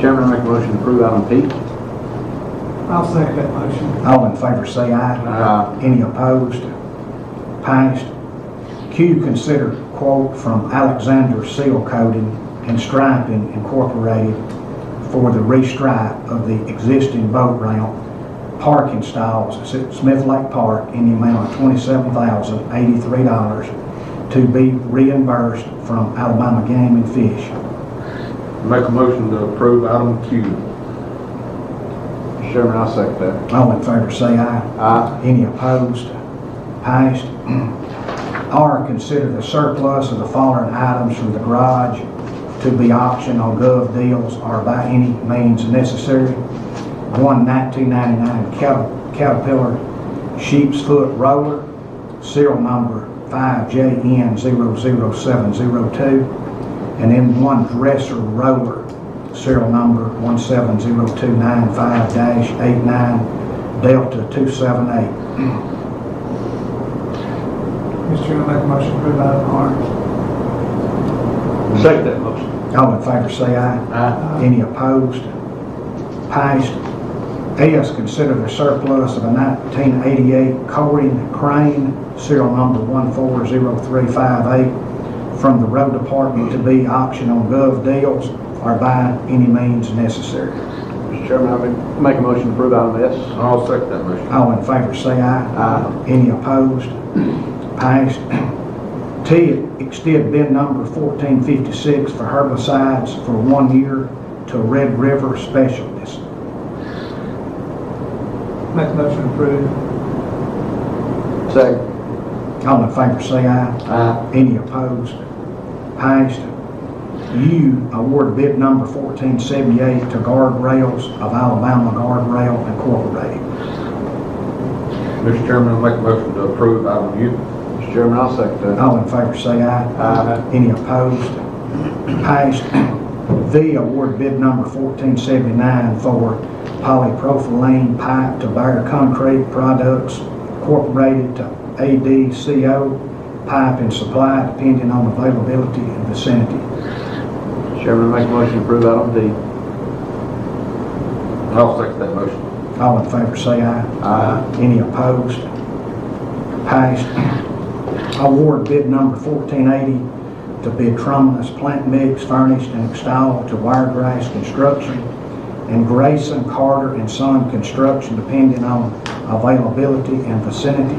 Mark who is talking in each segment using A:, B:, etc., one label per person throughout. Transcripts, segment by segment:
A: Chairman, I make a motion to approve item P.
B: I'll second that motion.
C: All in favor say aye.
A: Aye.
C: Any opposed? Passed. Q, consider quote from Alexander Seal Coating and Striping Incorporated for the restripe of the existing boat ramp parking stalls at Smith Lake Park in the amount of twenty-seven thousand eighty-three dollars to be reimbursed from Alabama Game and Fish.
A: Make a motion to approve item Q. Chairman, I second that.
C: All in favor say aye.
A: Aye.
C: Any opposed? Passed. R, consider the surplus of the following items from the garage to be auctioned on gov deals or by any means necessary. One 1999 Cat- Caterpillar sheep's foot roller, serial number 5JN00702, and then one dresser roller, serial number 170295-89 Delta 278.
B: Mr. Chairman, I make a motion to approve item R.
A: Second that motion.
C: All in favor, say aye.
A: Aye.
C: Any opposed? Passed. S, consider the surplus of a 1988 Coring Crane, serial number 140358, from the road department to be auctioned on gov deals or by any means necessary.
A: Mr. Chairman, I make- make a motion to approve item S. I'll second that motion.
C: All in favor, say aye.
A: Aye.
C: Any opposed? Passed. T, extend bid number 1456 for herbicides for one year to Red River Specialist.
B: Make a motion to approve.
A: Second.
C: All in favor, say aye.
A: Aye.
C: Any opposed? Passed. U, award bid number 1478 to Guard Rails of Alabama Guard Rail Incorporated.
A: Mr. Chairman, I make a motion to approve item U. Mr. Chairman, I'll second that.
C: All in favor, say aye.
A: Aye.
C: Any opposed? Passed. V, award bid number 1479 for polypropylene pipe to Bear Concrete Products Incorporated to ADCO Pipe and Supply, depending on availability and vicinity.
A: Mr. Chairman, I make a motion to approve item D. I'll second that motion.
C: All in favor, say aye.
A: Aye.
C: Any opposed? Passed. Award bid number 1480 to bid Trumulus plant mix furnished and installed to Wiregrass Construction and Grayson Carter and Son Construction, depending on availability and vicinity.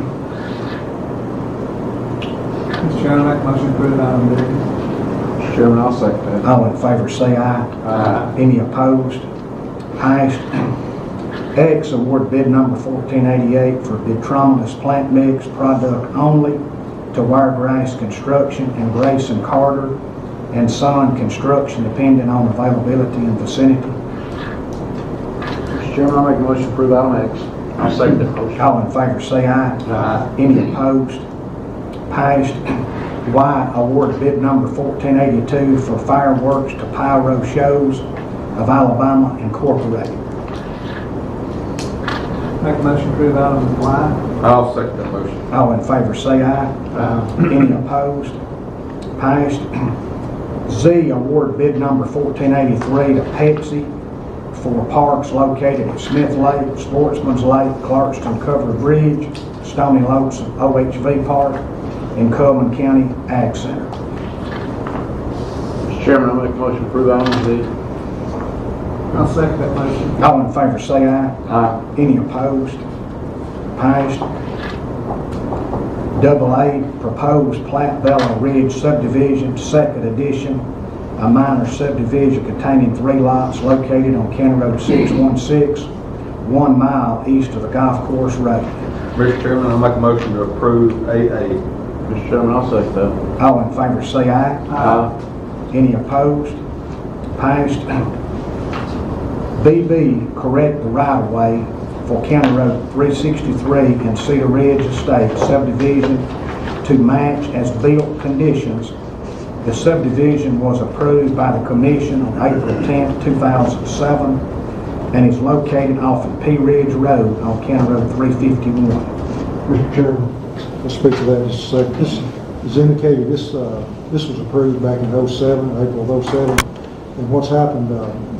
B: Mr. Chairman, I make a motion to approve item B.
A: Mr. Chairman, I'll second that.
C: All in favor, say aye.
A: Aye.
C: Any opposed? Passed. X, award bid number 1488 for Bitromulus plant mix product only to Wiregrass Construction and Grayson Carter and Son Construction, depending on availability and vicinity.
A: Mr. Chairman, I make a motion to approve item X. I'll second that motion.
C: All in favor, say aye.
A: Aye.
C: Any opposed? Passed. Y, award bid number 1482 for fireworks to Pyro Shows of Alabama Incorporated.
B: Make a motion to approve item Y.
A: I'll second that motion.
C: All in favor, say aye. Any opposed? Passed. Z, award bid number 1483 to Pepsi for parks located at Smith Lake, Sportsman's Lake, Clarkston Cover Bridge, Stony Lakes OHV Park, and Coleman County Ag Center.
A: Mr. Chairman, I make a motion to approve item Z.
B: I'll second that motion.
C: All in favor, say aye.
A: Aye.
C: Any opposed? Passed. Double A, proposed Platteville Ridge subdivision, second edition, a minor subdivision containing three lots located on County Road 616, one mile east of the golf course road.
A: Mr. Chairman, I make a motion to approve AA. Mr. Chairman, I'll second that.
C: All in favor, say aye.
A: Aye.
C: Any opposed? Passed. BB, correct the right-of-way for County Road 363 and Cedar Ridge Estate subdivision to match as built conditions. The subdivision was approved by the commission on April 10, 2007, and is located off of P Ridge Road on County Road 351.
D: Mr. Chairman, I'll speak to that in just a second. This is indicated, oh this, uh, this was approved back in '07, April of '07. And what's happened, uh,